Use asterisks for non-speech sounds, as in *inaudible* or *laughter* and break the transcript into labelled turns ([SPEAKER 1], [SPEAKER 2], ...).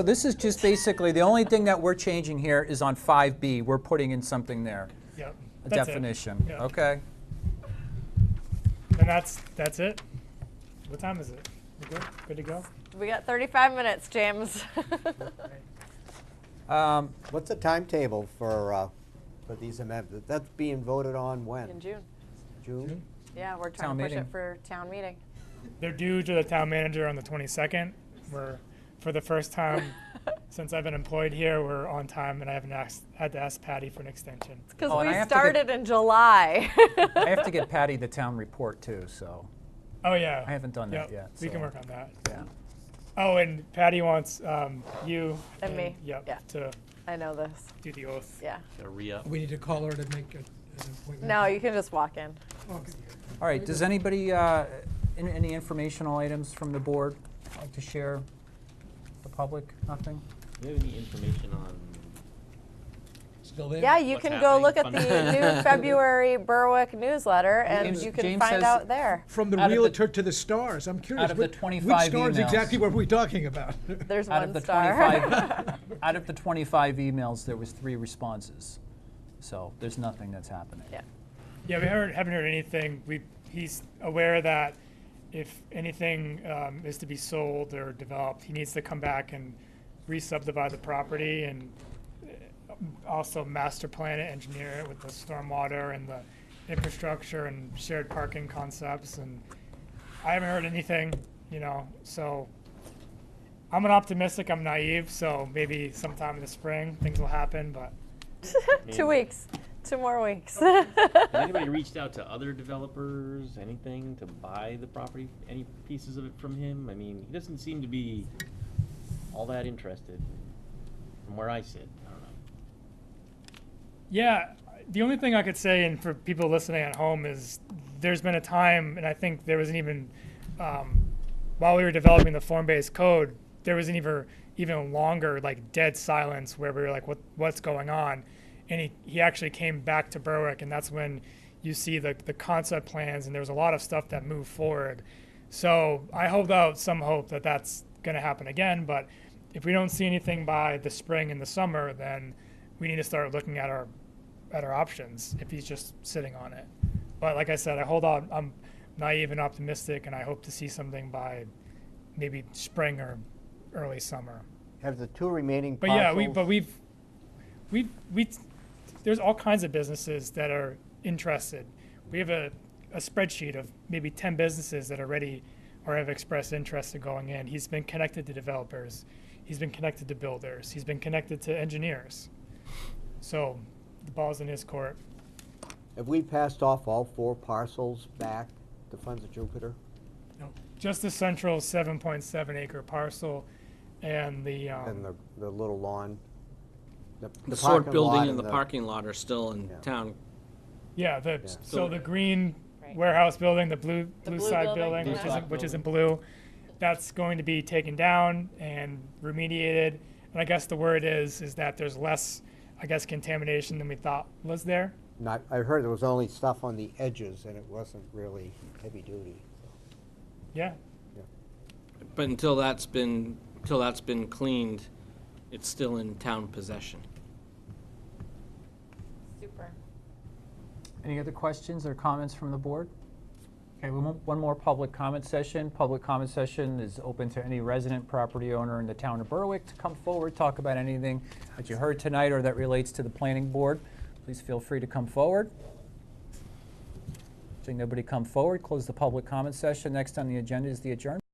[SPEAKER 1] So This is just basically, the only thing that we're changing here is on 5B, we're putting in something there,
[SPEAKER 2] Yep.
[SPEAKER 1] a
[SPEAKER 2] that's it.
[SPEAKER 1] definition.
[SPEAKER 2] Yeah.
[SPEAKER 1] Okay.
[SPEAKER 2] And that's that's it. What time is it? We good? Good to go?
[SPEAKER 3] We got 35
[SPEAKER 1] *laughs*
[SPEAKER 3] minutes, James.
[SPEAKER 1] Um,
[SPEAKER 4] What's the timetable for, uh, for these amendments? That's being voted on
[SPEAKER 3] In
[SPEAKER 4] when?
[SPEAKER 3] June.
[SPEAKER 4] June?
[SPEAKER 3] Yeah, we're trying
[SPEAKER 1] Town
[SPEAKER 3] to push
[SPEAKER 1] meeting.
[SPEAKER 3] it for
[SPEAKER 1] *laughs*
[SPEAKER 3] town meeting.
[SPEAKER 2] They're due to the town manager on the 22nd. We're for the first
[SPEAKER 1] *laughs*
[SPEAKER 2] time since I've been employed here, we're on time, and I haven't asked, had to ask Patty for an extension.
[SPEAKER 3] Because
[SPEAKER 1] Oh, and I
[SPEAKER 3] we
[SPEAKER 1] have to get-
[SPEAKER 3] started in July.
[SPEAKER 1] I have to get Patty the town report too, so,
[SPEAKER 2] Oh yeah.
[SPEAKER 1] I haven't done that
[SPEAKER 2] Yep,
[SPEAKER 1] yet,
[SPEAKER 2] We can
[SPEAKER 1] so-
[SPEAKER 2] work on that.
[SPEAKER 1] yeah.
[SPEAKER 2] Oh, and Patty wants um, you
[SPEAKER 3] And me.
[SPEAKER 2] Yep.
[SPEAKER 3] Yeah.
[SPEAKER 2] To
[SPEAKER 3] *laughs* I know this.
[SPEAKER 2] do the oath.
[SPEAKER 3] Yeah.
[SPEAKER 5] Gotta re-up.
[SPEAKER 6] We need to call her to make a- an appointment.
[SPEAKER 3] No, you can just walk in.
[SPEAKER 6] Okay.
[SPEAKER 1] All right, does anybody, uh, an- any informational items from the board like to share? with The public, nothing?
[SPEAKER 5] Do you have any information on?
[SPEAKER 6] Still there?
[SPEAKER 3] Yeah, you
[SPEAKER 5] What's
[SPEAKER 3] can go look at the
[SPEAKER 1] *laughs*
[SPEAKER 5] happening?
[SPEAKER 3] new February Berwick newsletter and
[SPEAKER 1] James-
[SPEAKER 3] you can
[SPEAKER 1] James
[SPEAKER 3] find
[SPEAKER 1] says-
[SPEAKER 3] out there.
[SPEAKER 6] From the
[SPEAKER 1] Out of the-
[SPEAKER 6] realtor to the stars, I'm curious.
[SPEAKER 1] out of the
[SPEAKER 6] which-
[SPEAKER 1] 25
[SPEAKER 6] Which stars
[SPEAKER 1] emails.
[SPEAKER 6] exactly were we talking about?
[SPEAKER 3] There's
[SPEAKER 1] Out of
[SPEAKER 3] one
[SPEAKER 1] the
[SPEAKER 3] star.
[SPEAKER 1] 25 Out of the 25 emails, there was three responses, so there's nothing that's happening.
[SPEAKER 3] Yeah.
[SPEAKER 2] Yeah, we heard, haven't heard anything. We, he's aware that if anything um, is to be sold or developed, he needs to come back and re-subdivide the property and uh, also master plan it, engineer it with the stormwater and the infrastructure and shared parking concepts. And I haven't heard anything, you know, so I'm an optimistic, I'm naive, so maybe sometime in the spring, things will happen, but
[SPEAKER 3] *laughs* Two weeks, two more weeks.
[SPEAKER 5] Has anybody reached out to other developers, anything to buy the property, any pieces of it from him? I mean, he doesn't seem to be all that interested from where I sit. I don't know.
[SPEAKER 2] Yeah, the only thing I could say, and for people listening at home, is there's been a time, and I think there wasn't even, um, while we were developing the form-based code, there wasn't even even longer like dead silence where we were like, what what's going on? And he, he actually came back to Berwick, and that's when you see the the concept plans, and there was a lot of stuff that moved forward. So I hold out some hope that that's going to happen again, but if we don't see anything by the spring and the summer, then we need to start looking at our at our options if he's just sitting on it. But like I said, I hold on. I'm naive and optimistic, and I hope to see something by maybe spring or early summer.
[SPEAKER 4] Have the two remaining
[SPEAKER 2] But
[SPEAKER 4] parcels?
[SPEAKER 2] yeah, we but we've we we there's all kinds of businesses that are interested. We have a, a spreadsheet of maybe ten businesses that are ready or have expressed interest in going in. He's been connected to developers, he's been connected to builders, he's been connected to engineers. So the ball's in his court.
[SPEAKER 4] Have we passed off all four parcels back to Funds of Jupiter?
[SPEAKER 2] Just the central seven point seven acre parcel and the um,
[SPEAKER 4] And the, the little lawn? The
[SPEAKER 7] The
[SPEAKER 4] the
[SPEAKER 7] sort
[SPEAKER 4] parking
[SPEAKER 7] building
[SPEAKER 4] lot
[SPEAKER 7] and the parking lot are still in
[SPEAKER 4] Yeah.
[SPEAKER 7] town.
[SPEAKER 2] Yeah, the, so
[SPEAKER 7] So-
[SPEAKER 2] the green
[SPEAKER 3] Right.
[SPEAKER 2] warehouse building, the blue, blue
[SPEAKER 3] blue
[SPEAKER 2] side
[SPEAKER 3] building,
[SPEAKER 2] building,
[SPEAKER 3] Blue
[SPEAKER 2] which
[SPEAKER 5] side
[SPEAKER 2] isn't, which
[SPEAKER 5] building.
[SPEAKER 2] isn't blue, that's going to be taken down and remediated. And I guess the word is, is that there's less, I guess, contamination than we thought was there.
[SPEAKER 4] Not, I heard there was only stuff on the edges and it wasn't really heavy duty.
[SPEAKER 2] Yeah,
[SPEAKER 7] But until that's been, until that's been cleaned, it's still in town possession.
[SPEAKER 3] *laughs* Super.
[SPEAKER 1] Any other questions or comments from the board? Okay, we want one more public comment session. Public comment session is open to any resident property owner in the town of Berwick to come forward, talk about anything that you heard tonight or that relates to the planning board. Please feel free to come forward. Seeing nobody come forward, close the public comment session. Next on the agenda is the adjournment.